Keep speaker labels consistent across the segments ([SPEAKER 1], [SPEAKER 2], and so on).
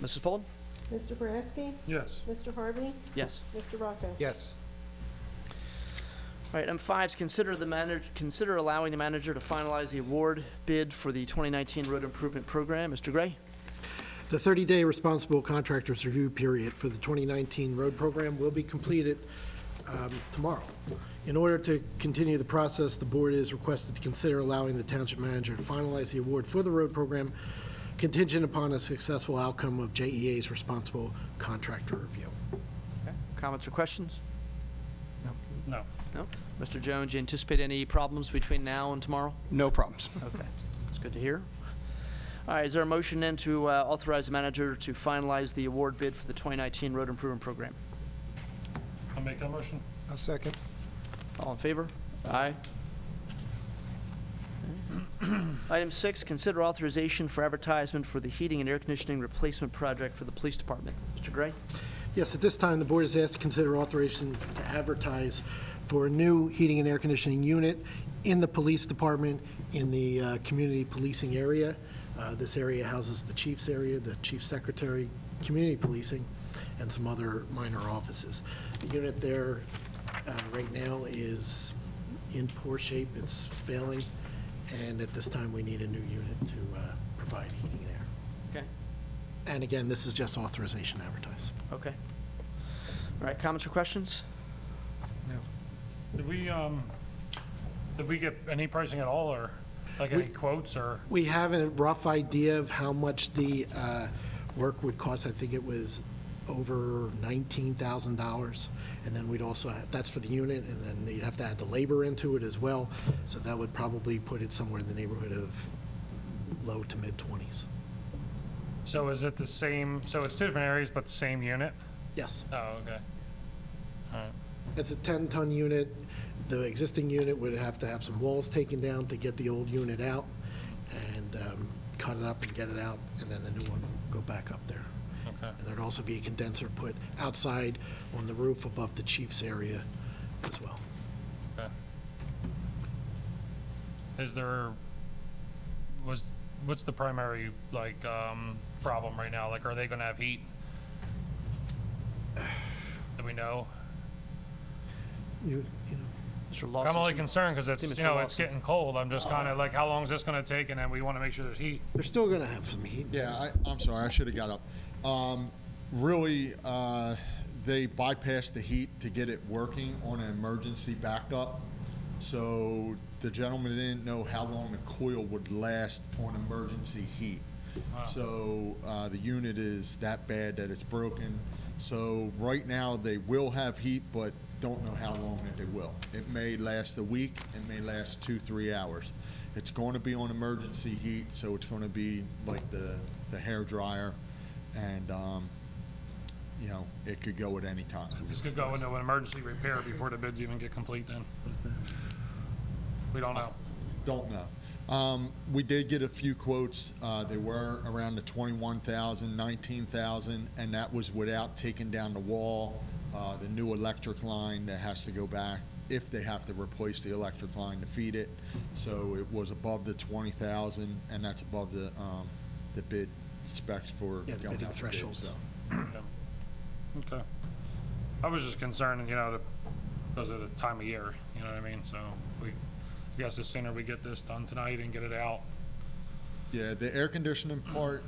[SPEAKER 1] Mrs. Poland?
[SPEAKER 2] Mr. Boraski?
[SPEAKER 3] Yes.
[SPEAKER 2] Mr. Harvey?
[SPEAKER 1] Yes.
[SPEAKER 2] Mr. Rocco?
[SPEAKER 3] Yes.
[SPEAKER 1] All right, M5 is consider the manager, consider allowing the manager to finalize the award bid for the 2019 road improvement program. Mr. Gray?
[SPEAKER 4] The 30-day responsible contractors review period for the 2019 road program will be completed um, tomorrow. In order to continue the process, the board is requested to consider allowing the township manager to finalize the award for the road program contingent upon a successful outcome of JEA's responsible contractor review.
[SPEAKER 1] Comments or questions?
[SPEAKER 3] No.
[SPEAKER 1] No? Mr. Jones, you anticipate any problems between now and tomorrow?
[SPEAKER 4] No problems.
[SPEAKER 1] Okay, that's good to hear. All right, is there a motion then to uh, authorize the manager to finalize the award bid for the 2019 road improvement program?
[SPEAKER 3] I'll make that motion.
[SPEAKER 5] A second.
[SPEAKER 1] All in favor? Aye. Item six, consider authorization for advertisement for the heating and air conditioning replacement project for the police department. Mr. Gray?
[SPEAKER 4] Yes, at this time, the board is asked to consider authorization to advertise for a new heating and air conditioning unit in the police department in the uh, community policing area. Uh, This area houses the chief's area, the chief secretary, community policing, and some other minor offices. The unit there uh, right now is in poor shape, it's failing, and at this time, we need a new unit to uh, provide heating and air.
[SPEAKER 1] Okay.
[SPEAKER 4] And again, this is just authorization to advertise.
[SPEAKER 1] Okay. All right, comments or questions?
[SPEAKER 3] Did we, um, did we get any pricing at all, or like any
[SPEAKER 4] We-
[SPEAKER 3] quotes, or?
[SPEAKER 4] We have a rough idea of how much the uh, work would cost. I think it was over $19,000. And then we'd also, have- that's for the unit, and then you'd have to add the labor into it as well. So that would probably put it somewhere in the neighborhood of low to mid-20s.
[SPEAKER 3] So is it the same, so it's two different areas, but the same unit?
[SPEAKER 4] Yes.
[SPEAKER 3] Oh, okay.
[SPEAKER 4] It's a 10-ton unit. The existing unit would have to have some walls taken down to get the old unit out and um, cut it up and get it out, and then the new one will go back up there.
[SPEAKER 3] Okay.
[SPEAKER 4] And there'd also be a condenser put outside on the roof above the chief's area as well.
[SPEAKER 3] Is there, was, what's the primary, like, um, problem right now? Like, are they gonna have heat? Do we know?
[SPEAKER 4] You, you
[SPEAKER 1] Mr.
[SPEAKER 4] know,
[SPEAKER 3] I'm only
[SPEAKER 1] Lawson?
[SPEAKER 3] concerned because
[SPEAKER 1] See,
[SPEAKER 3] it's,
[SPEAKER 1] Mr.
[SPEAKER 3] you know, it's
[SPEAKER 1] Lawson.
[SPEAKER 3] getting cold. I'm just kind of like, how long is this going to take? And then we want to make sure there's heat.
[SPEAKER 4] They're still going to have some heat.
[SPEAKER 5] Yeah, I, I'm sorry, I should have got up. Um, really, uh, they bypassed the heat to get it working on an emergency backup. So the gentleman didn't know how long the coil would last on emergency heat. So, uh, the unit is that bad that it's broken. So right now, they will have heat, but don't know how long that they will. It may last a week, it may last two, three hours. It's going to be on emergency heat, so it's going to be like the, the hair dryer, and, um, you know, it could go at any time.
[SPEAKER 3] This could go into an emergency repair before the bids even get complete then. We don't know.
[SPEAKER 5] Don't know. Um, we did get a few quotes. Uh, they were around the 21,000, 19,000, and that was without taking down the wall, uh, the new electric line that has to go back if they have to replace the electric line to feed it. So it was above the 20,000, and that's above the um, the bid specs for
[SPEAKER 4] Yeah, the
[SPEAKER 5] going
[SPEAKER 4] bidding
[SPEAKER 5] out for bid,
[SPEAKER 4] thresholds.
[SPEAKER 5] so.
[SPEAKER 3] Okay. I was just concerned, you know, because of the time of year, you know what I mean? So if we, I guess the sooner we get this done tonight and get it out.
[SPEAKER 5] Yeah, the air conditioning part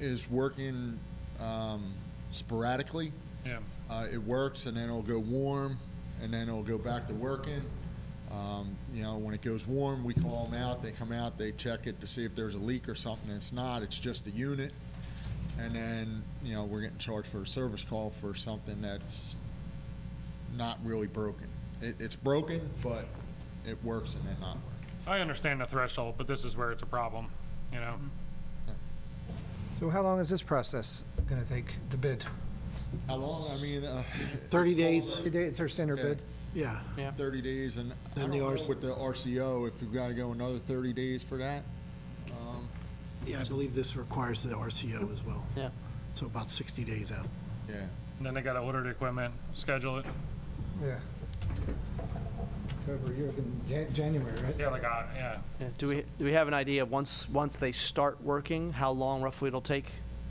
[SPEAKER 5] is working um, sporadically.
[SPEAKER 3] Yeah.
[SPEAKER 5] Uh, it works, and then it'll go warm, and then it'll go back to working. Um, you know, when it goes warm, we call them out. They come out, they check it to see if there's a leak or something. It's not. It's just the unit, and then you know we're getting charged for a service call for something that's not really broken. It, it's broken, but it works and then not work.
[SPEAKER 3] I understand the threshold, but this is where it's a problem, you know?
[SPEAKER 6] So how long is this process going to take to bid?
[SPEAKER 5] How long? I mean, uh,
[SPEAKER 4] 30 days,
[SPEAKER 6] Thirty days, their standard
[SPEAKER 5] Yeah.
[SPEAKER 6] bid?
[SPEAKER 4] yeah.
[SPEAKER 5] 30 days, and I
[SPEAKER 4] Then
[SPEAKER 5] don't
[SPEAKER 4] the
[SPEAKER 5] know
[SPEAKER 4] RC
[SPEAKER 5] with the RCO if we've got to go another 30 days for that. Um,
[SPEAKER 4] Yeah, I believe this requires the RCO as well.
[SPEAKER 1] Yeah.
[SPEAKER 4] So about 60 days out.
[SPEAKER 5] yeah.
[SPEAKER 3] And then they got to order the equipment, schedule it.
[SPEAKER 6] Yeah. October, you're looking Jan- January, right?
[SPEAKER 3] Yeah, like, uh, yeah.
[SPEAKER 1] Yeah, Do we, do we have an idea, once, once they start working, how long roughly it'll take?